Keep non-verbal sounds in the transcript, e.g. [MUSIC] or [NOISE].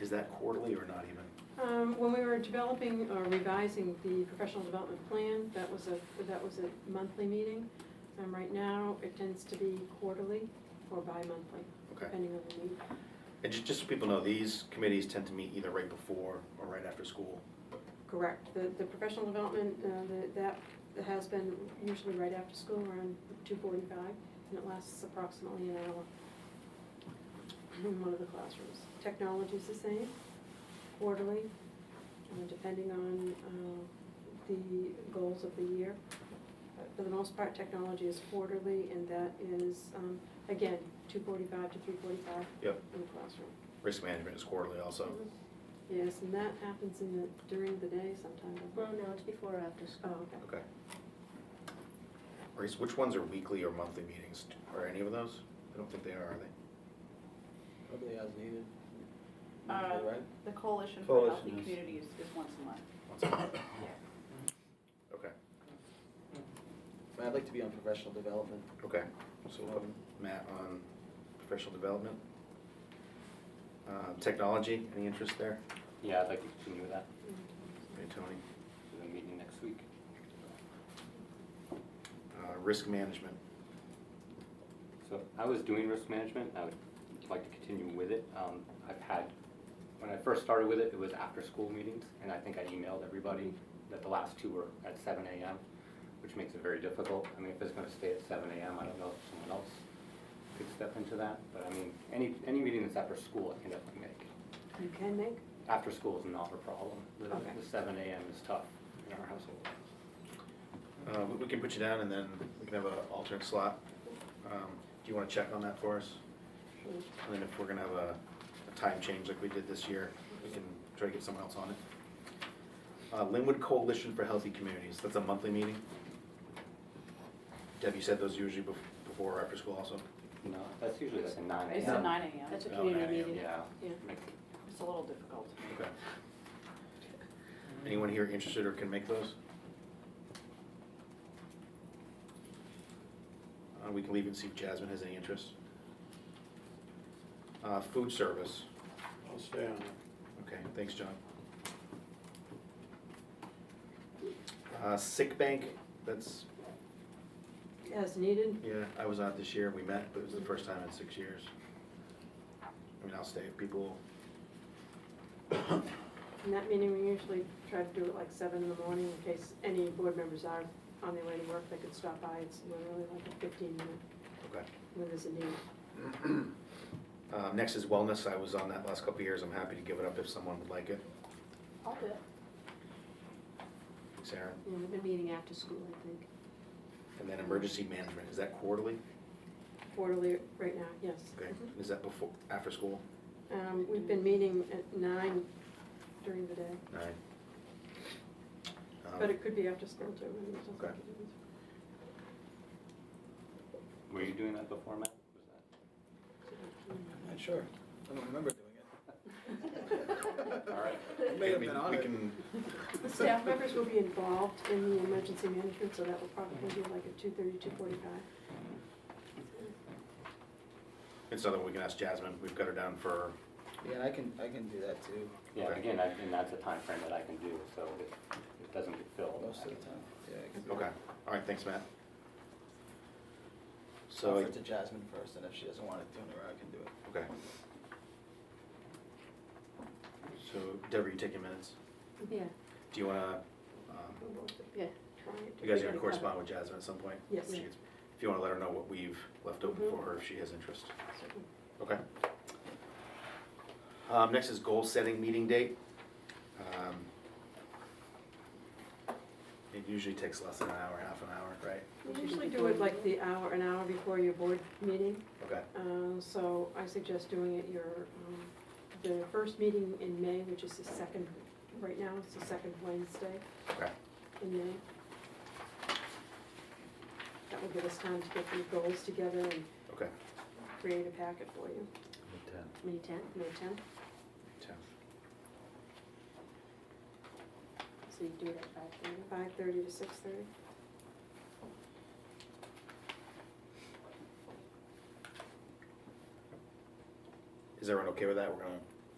Is that quarterly or not even? Um, When we were developing or revising the professional development plan, that was a, that was a monthly meeting. And right now, it tends to be quarterly or bi-monthly, Okay. depending on the need. And just, just so people know, these committees tend to meet either right before or right after school. Correct. The, the professional development, uh, the- that has been usually right after school, around two forty-five, and it lasts approximately an hour in one of the classrooms. Technology's the same, quarterly, uh, depending on uh, the goals of the year. But For the most part, technology is quarterly, and that is, um, again, two forty-five to three forty-five Yep. Mm-hmm. in the classroom. Risk management is quarterly also. Yes, and that happens in the, during the day sometimes, I Well, no, it's before or after Oh, school. okay. Okay. Grace, which ones are weekly or monthly meetings? Are any of those? I don't think they are, are they? Probably as needed. Uh, Right? The Coalition for Healthy Coalition is- Communities is once a month. Once a month? Okay, But I'd like to be on professional development. okay. So we'll put Um, Matt on professional development. Um, Technology, any interest there? Yeah, I'd like to continue with that, Hey, Tony. for the meeting next week. Uh, Risk management, So I was doing risk management, and I would like to continue with it. Um, I've had, when I first started with it, it was after-school meetings, and I think I emailed everybody that the last two were at seven AM, which makes it very difficult. I mean, if it's gonna stay at seven AM, I don't know if someone else could step into that, but I mean, any, any meeting that's after school, I can definitely make. You can make, After school is not a problem. The Okay. the seven AM is tough in our household. Uh, we- we can put you down and then we can have an alternate slot. Um, Do you want to check on that for us? sure. And then if we're gonna have a, a time change like we did this year, we can try to get someone else on it. Uh, Linwood Coalition for Healthy Communities, that's a monthly meeting. Deb, you said those usually bef- before or after school also? No, that's usually like a nine AM. It's at nine AM. That's a No, community not yet. meeting. Oh, Yeah. Yeah. makes it- It's a little difficult. Okay. Anyone here interested or can make those? Uh, we can leave and see if Jasmine has any interest. Uh, food service, I'll stay on it. okay, thanks, John. Uh, sick bank, that's, As needed, yeah, I was out this year, we met, but it was the first time in six years. I mean, I'll stay if people, [COUGHS] in that meeting, we usually try to do it like seven in the morning in case any board members are on their way to work, they could stop by, it's literally like a fifteen minute, okay. when there's a need. [CLEARS THROAT] Uh, next is wellness, I was on that last couple of years, I'm happy to give it up if someone would like it. I'll do it. Sarah. Yeah, we've been meeting after school, I think. And then emergency management, is that quarterly? Quarterly right now, yes. Okay, Mm-hmm. is that before, after school? Um, we've been meeting at nine during the day, Nine. Um, but it could be after school too, I mean, it doesn't Okay. [LAUGHS] make a difference. Were you doing that before, Matt? Was that- I'm not sure. I don't remember doing it. [LAUGHS] All right. I may have we- been on we it. can- The staff members will be involved in the emergency management, so that will probably be like at two thirty, two forty-five. It's something we can ask Jasmine, we've got her down for, Yeah, and I can, I can do that too, Yeah, Okay. again, I- and that's a time frame that I can do, so if it doesn't get filled. I most of the can- time. Yeah, I can do okay, all right, thanks, Matt. it. Offer So, it to Jasmine first, and if she doesn't want it, then I can do it. okay. So Deborah, you taking minutes? Yeah, Do you wanna, um, yeah. you guys are gonna correspond with Jasmine at some point? Yes. She gets- If you wanna let her know what we've left open for her, if she has interest. Okay. Um, next is goal setting meeting date. Um, It usually takes less than an hour, half an hour, right? We usually do it like the hour, an hour before your board meeting, Okay, uh, so I suggest doing it your, um, the first meeting in May, which is the second, right now, it's the second Wednesday okay. in May. That will give us time to get the goals together and Okay. create a packet for you, May tenth? May tenth, Ten. So you do it at five thirty? five thirty to six thirty. Is everyone okay with that? We're gonna